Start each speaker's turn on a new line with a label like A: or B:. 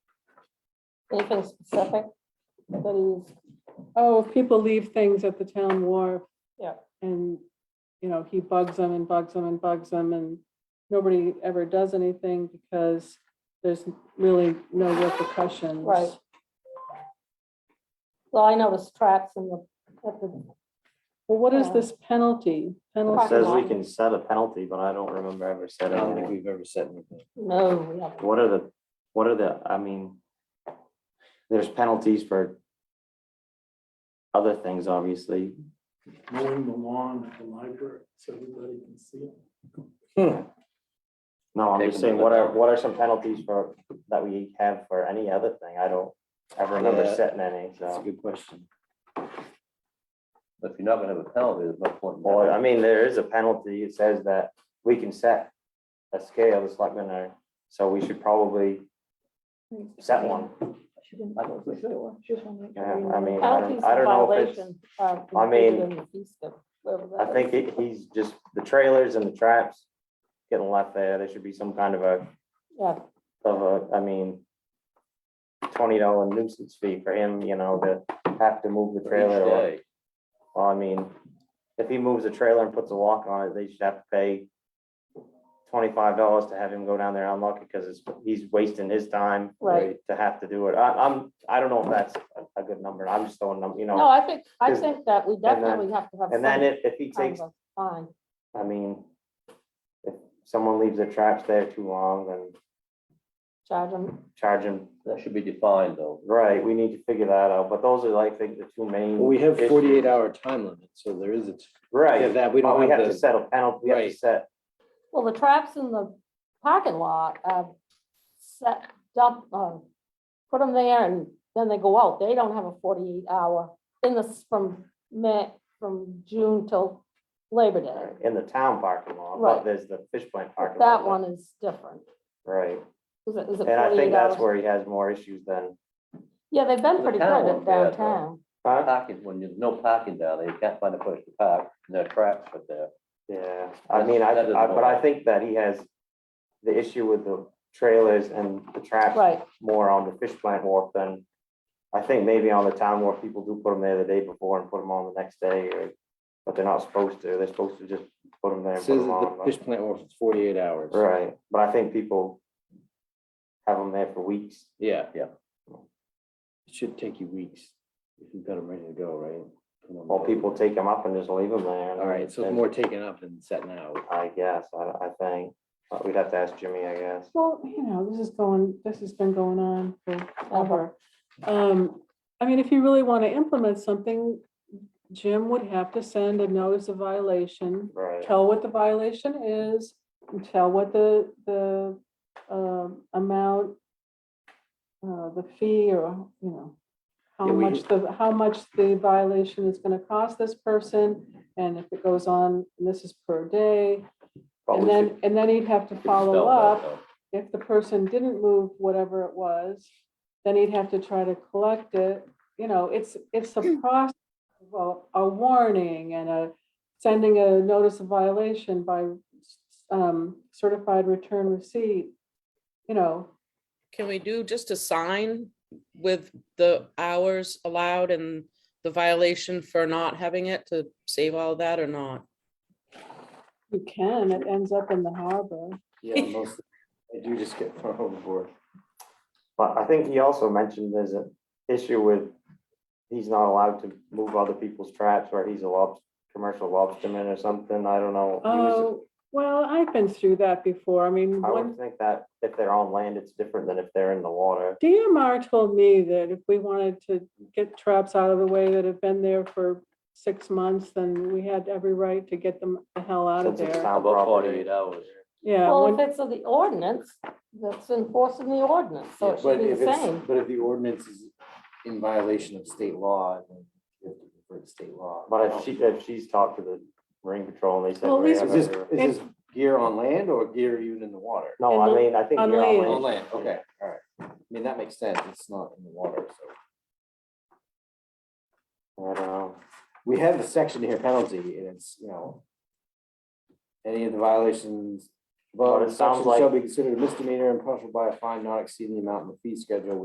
A: Anything specific that he's,
B: Oh, if people leave things at the town wharf.
A: Yeah.
B: And, you know, he bugs them and bugs them and bugs them and nobody ever does anything because there's really no repercussions.
A: Right. well, I know his tracks in the, at the,
B: Well, what is
A: Yeah.
B: this penalty?
A: Parking
C: It
B: Penalty,
C: says we
A: lot.
C: can set a penalty, but I don't remember ever
D: I
A: Oh,
C: setting
D: don't think
C: one.
D: we've ever said anything.
A: no, we haven't.
C: What are the, what are the, I mean, there's penalties for other things, obviously.
E: mowing the lawn at the library so everybody can see it.
C: No, I'm
D: Take
C: just
D: them
C: saying,
D: to
C: what
D: the
C: are,
D: dump.
C: what are some penalties for, that we have for any other thing? I don't ever remember
D: Yeah.
C: setting any,
D: That's a
C: so.
D: good question. Um, But if you're not gonna have a penalty, there's no point. in
C: Well, I
D: having it.
C: mean, there is a penalty. It says that we can set a scale, the selectmen are, so we should probably set one.
D: I don't think so.
C: Yeah, I mean, I
A: Penalties
C: don't,
A: for
C: I don't know if it's.
A: violation are
C: I mean,
A: included in the fee schedule, whatever
C: I
A: that
C: think
A: is.
C: it- he's just, the trailers and the traps getting left there, there should be some kind of a,
A: Yeah,
C: of a, I mean, twenty dollar nuisance fee for him, you know, to have to move the
D: Each
C: trailer. or-
D: day.
C: Well, I mean, if he moves the trailer and puts a lock on it, they should have to pay twenty-five dollars to have him go down there and unlock it, because it's, he's wasting his time
A: right.
C: to have to do it. I, I'm, I don't know if that's a- a good number, I'm just throwing them, you
A: No,
C: know.
A: I think, I
C: Is-
A: think that we
C: then-
A: definitely have to have.
C: And then
A: some
C: if, if he
A: kind
C: takes
A: of a Fine,
C: I mean, if someone leaves their traps there too long, then
A: charge them,
C: charge them,
D: That should be defined though.
C: right, we need to figure that out, but those are like the, the two main.
F: Well, we have
C: issues.
F: forty-eight hour time limit, so there is, it's, yeah,
C: Right,
F: that, we
C: but
F: don't
C: we have
F: have
C: to
F: the,
C: set a penalty, we have to
F: Right.
C: set,
A: well, the traps in the parking lot, uh, set, dump, uh, put them there and then they go out, they don't have a forty-eight hour in this from May, from June till Labor Day.
C: in the town parking lot,
A: Right.
C: but there's the fish plant
A: But
C: parking lot.
A: That one is different.
C: Right,
A: Is it, is it
C: and I think
A: forty-eight
C: that's
A: hours?
C: where he has more issues than,
A: Yeah, they've been
D: The
A: pretty good at
D: town won't be out there.
A: downtown.
C: huh?
D: Parking, when there's no parking down there, you can't find a place to park, and there are traps but there.
C: Yeah, I mean, I,
D: That doesn't
C: I, but I
D: matter.
C: think that he has the issue with the trailers and the traps
A: Right,
C: more on the fish plant wharf than, I think maybe on the town wharf, people do put them there the day before and put them on the next day, or, but they're not supposed to, they're supposed to just put them there and put
F: says
C: them
F: that
C: on.
F: the
C: but-
F: fish plant was forty-eight hours.
C: Right, but I think people have them there for weeks.
F: Yeah.
D: Yeah.
F: It should take you weeks if you've got them ready to go, right? Put 'em
C: Well,
F: down.
C: people take them up and just leave them there. and
F: All right, so it's
C: then-
F: more taken up than setting out.
C: I guess, I, I think, but we'd have to ask Jimmy, I guess.
B: well, you know, this is going, this has been going on forever.
A: Uh-huh.
B: Um, I mean, if you really want to implement something, Jim would have to send a notice of violation.
C: Right,
B: tell what the violation is, and tell what the, the um, amount, uh, the fee or, you know, how
F: Yeah, we-
B: much the, how much the violation is gonna cost this person, and if it goes on, and this is per day.
C: but
B: And
C: we should,
B: then, and then he'd have to
D: It's spelled
B: follow
D: out,
B: up,
D: though.
B: if the person didn't move whatever it was, then he'd have to try to collect it. You know, it's, it's a process, of a a warning and a, sending a notice of violation by um, certified return receipt. You know,
G: Can we do just a sign with the hours allowed and the violation for not having it to save all that or not?
B: you can, it ends up in the harbor.
F: Yeah, most, I do just get far overboard.
C: but I think he also mentioned there's an issue with, he's not allowed to move other people's traps, or he's a lob, commercial lobsterman or something, I don't know. He was-
B: Oh, well, I've been through that before. I mean,
C: I
B: Oh, one
C: would think that if they're on land, it's different than if they're in the water.
B: DMR told me that if we wanted to get traps out of the way that have been there for six months, then we had every right to get them the hell out of
C: Since it's
B: there.
C: town
D: How about
C: property.
D: forty-eight hours?
B: Yeah,
A: well, if
B: one-
A: it's of the ordinance, that's enforcing the ordinance, so
F: Yeah,
A: it should
F: But
A: be
F: if
A: the
F: it's,
A: same.
F: but if the ordinance is in violation of state law, then you have to refer to state law.
C: But if she, if she's talked to the marine patrol and they said.
B: Well,
C: we
B: these-
C: have
F: Is this,
C: every-
F: is this gear on land or gear even in the water?
C: No, I mean, I think
B: on
C: you're
B: land.
F: On
C: on land.
F: land, okay, all right. I mean, that makes sense. It's not in the water, so.
C: I don't know.
F: um, we have the section here penalty, and it's, you know. Any of the violations,
C: But
F: above
C: it
F: the
C: sounds
F: section
C: like-
F: shall be considered a misdemeanor and punishable by a fine not exceeding the amount in the fee schedule,